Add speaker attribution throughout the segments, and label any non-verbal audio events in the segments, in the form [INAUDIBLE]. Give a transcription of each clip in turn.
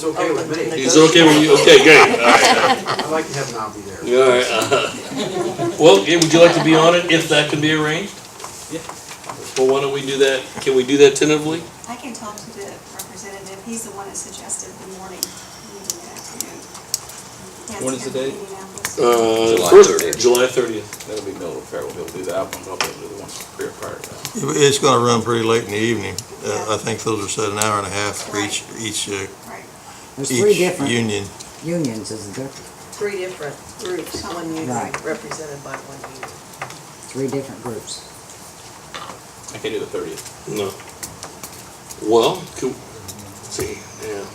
Speaker 1: It's okay with me.
Speaker 2: It's okay with you? Okay, great, all right.
Speaker 1: I'd like to have Navi there.
Speaker 2: [LAUGHS] All right. uh-huh. Well, yeah, would you like to be on it if that can be arranged?
Speaker 3: Yeah.
Speaker 2: Well, why don't we do that, can we do that tentatively?
Speaker 4: I can talk to the representative, he's the one that suggested the morning meeting in afternoon. He has
Speaker 3: When
Speaker 4: to
Speaker 3: is the
Speaker 4: have a
Speaker 3: date?
Speaker 4: meeting now.
Speaker 2: Uh,
Speaker 3: July
Speaker 2: first-
Speaker 3: 30th.
Speaker 2: July thirtieth.
Speaker 3: That'll be middle of February, he'll do that one, he'll do the ones career prior to that.
Speaker 5: It's gonna run pretty late in the evening. Uh,
Speaker 4: Yeah.
Speaker 5: I think those are set an hour and a half for each, each, uh,
Speaker 4: Right,
Speaker 6: There's three
Speaker 5: each
Speaker 6: different
Speaker 5: union.
Speaker 6: unions, isn't there?
Speaker 7: three different groups, one union
Speaker 6: Right.
Speaker 7: represented by one union.
Speaker 6: Three different groups.
Speaker 3: I can do the thirtieth.
Speaker 2: No. Well, could, see, yeah.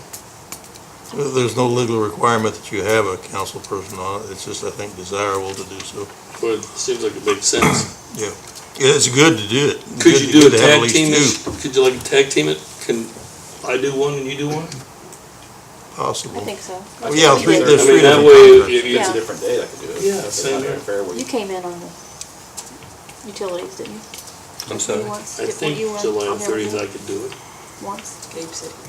Speaker 5: There's no legal requirement that you have a council person on it. It's just, I think, desirable to do so.
Speaker 2: Well, it seems like it makes sense.
Speaker 5: Yeah, It's good to do it.
Speaker 2: [COUGHS]
Speaker 5: It's
Speaker 2: Could
Speaker 5: good-
Speaker 2: you do a
Speaker 5: good to have at
Speaker 2: tag
Speaker 5: least
Speaker 2: team?
Speaker 5: two
Speaker 2: this- Could you like tag team it? Can I do one and you do one?
Speaker 8: I
Speaker 5: Possible.
Speaker 8: think so.
Speaker 5: Well, Oh, Yeah, three,
Speaker 3: I
Speaker 5: there's
Speaker 2: I
Speaker 5: three
Speaker 2: mean, that
Speaker 5: different
Speaker 2: way,
Speaker 5: contracts.
Speaker 2: if you,
Speaker 3: It's a
Speaker 8: Yeah.
Speaker 3: different day, I could do it.
Speaker 2: Yeah,
Speaker 3: That's
Speaker 2: same
Speaker 3: not very
Speaker 2: here.
Speaker 3: fair, we-
Speaker 8: You came in on the utilities, didn't you?
Speaker 5: I'm
Speaker 8: You once,
Speaker 2: I
Speaker 8: did- were
Speaker 2: think
Speaker 8: you on-
Speaker 2: July
Speaker 8: on there
Speaker 2: thirtieth I could do it.
Speaker 8: Once?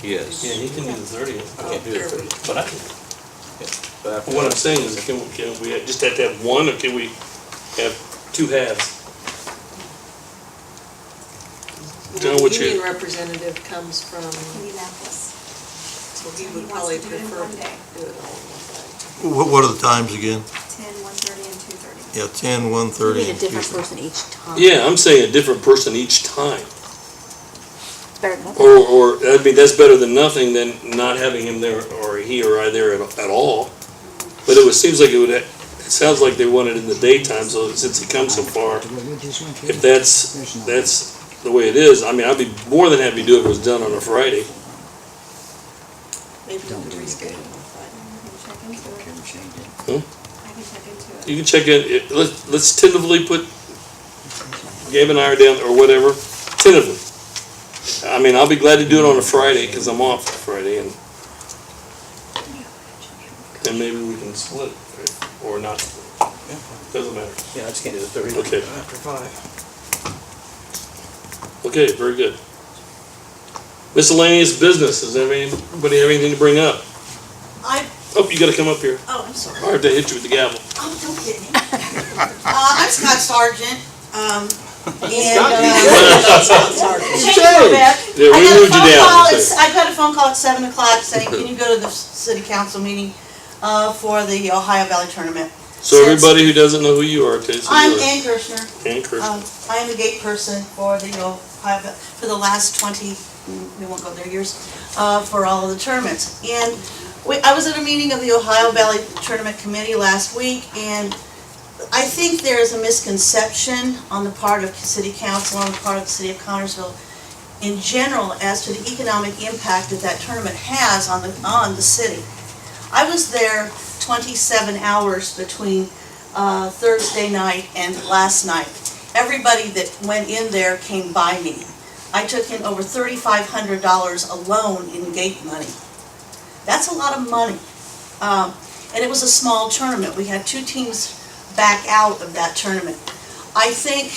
Speaker 2: Yeah,
Speaker 3: Yes.
Speaker 2: he can do the thirtieth.
Speaker 3: I can't do
Speaker 7: Oh,
Speaker 3: the thirtieth.
Speaker 2: But I can
Speaker 3: But after
Speaker 2: Well, What I'm
Speaker 3: that-
Speaker 2: saying is, can, can we just have to have one, or can we have two halves? John, what you-
Speaker 7: Union representative comes from,
Speaker 4: Indianapolis.
Speaker 7: so he
Speaker 4: He
Speaker 7: would
Speaker 4: wants
Speaker 7: probably
Speaker 4: to do it in
Speaker 7: prefer
Speaker 4: one
Speaker 7: to
Speaker 4: day.
Speaker 7: do it all in one day.
Speaker 5: What, what are the times again?
Speaker 4: 10, 1:30, and 2:30.
Speaker 5: Yeah, ten, one
Speaker 8: You
Speaker 5: thirty.
Speaker 8: need a
Speaker 5: and
Speaker 8: different
Speaker 5: 2:30.
Speaker 8: person each time.
Speaker 2: Yeah, I'm saying a different person each time,
Speaker 8: It's better than nothing.
Speaker 2: or, or, I mean, that's better than nothing than not having him there, or he or I there at, at all. But it was, seems like it would, ha- it sounds like they want it in the daytime, so since he comes so far,
Speaker 6: What we just went through.
Speaker 2: if that's,
Speaker 6: There's no-
Speaker 2: that's the way it is, I mean, I'd be more than happy to do it if it was done on a Friday.
Speaker 7: Maybe
Speaker 6: Don't
Speaker 7: we
Speaker 6: do
Speaker 7: could
Speaker 6: it
Speaker 7: reschedule
Speaker 6: again.
Speaker 7: on Friday.
Speaker 4: I can check into it,
Speaker 6: Can we change it?
Speaker 4: I can check into
Speaker 2: You
Speaker 4: it.
Speaker 2: can check in, it- let's, let's tentatively put, Gabe and I are down, or whatever, tentatively. I mean, I'll be glad to do it on a Friday, cause I'm off Friday, and then maybe we can split, right? or not, split. doesn't matter.
Speaker 3: Yeah, I just can't do the thirtieth.
Speaker 2: Okay.
Speaker 3: After five.
Speaker 2: Okay, very good. Miscellaneous business, does anybody have anything to bring up?
Speaker 7: I,
Speaker 2: Oh, you gotta come up here,
Speaker 7: oh, I'm sorry.
Speaker 2: I have to hit you with the gavel.
Speaker 7: Oh, don't get me. [LAUGHS] Uh, I'm Scott Sargent,
Speaker 2: [LAUGHS]
Speaker 7: um, and, [LAUGHS]
Speaker 2: Yeah, we moved you down. so-
Speaker 7: I got a phone call at seven o'clock saying, can you go to the city council meeting, uh, for the Ohio Valley Tournament?
Speaker 2: So everybody who doesn't know who you are, Casey,
Speaker 7: I'm
Speaker 2: you're
Speaker 7: Ann Kirshner.
Speaker 2: Ann Kirsten.
Speaker 7: Um, I am the gate person for the, you know, I've- for the last twenty, we won't go there years, uh, for all of the tournaments. And we, I was at a meeting of the Ohio Valley Tournament Committee last week, and I think there is a misconception on the part of city council, on the part of the city of Connersville, in general, as to the economic impact that that tournament has on the, on the city. I was there twenty-seven hours between, uh, Thursday night and last night everybody that went in there came by me. I took in over thirty-five hundred dollars alone in gate money. That's a lot of money. Um, and it was a small tournament. We had two teams back out of that tournament. I think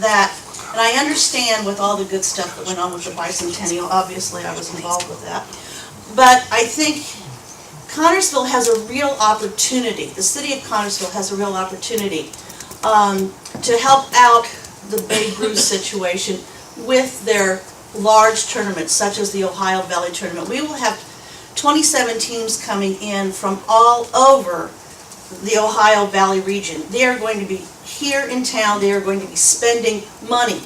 Speaker 7: that, and I understand with all the good stuff that went on with the bicentennial, obviously I was involved with that. But I think Connersville has a real opportunity, the city of Connersville has a real opportunity um, to help out the Babe Ruth situation with their large tournaments, such as the Ohio Valley Tournament. We will have 27 teams coming in from all over the Ohio Valley region. They are going to be here in town, they are going to be spending money,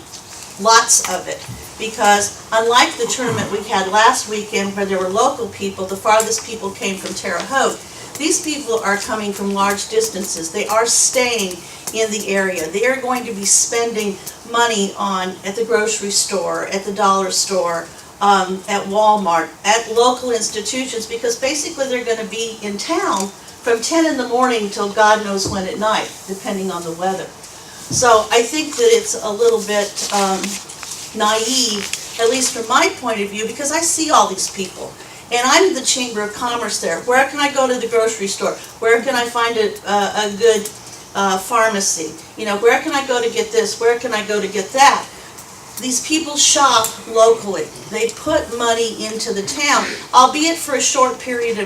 Speaker 7: lots of it. Because unlike the tournament we had last weekend where there were local people, the farthest people came from Terre Haute. These people are coming from large distances. They are staying in the area. They are going to be spending money on, at the grocery store, at the dollar store, um, at Walmart, at local institutions, because basically they're gonna be in town from ten in the morning till God knows when at night, depending on the weather. So I think that it's a little bit, um, naive, at least from my point of view, because I see all these people. And I'm the Chamber of Commerce there. Where can I go to the grocery store? Where can I find a, a, a good uh, pharmacy? You know, where can I go to get this? Where can I go to get that? these people shop locally. They put money into the town, albeit for a short period of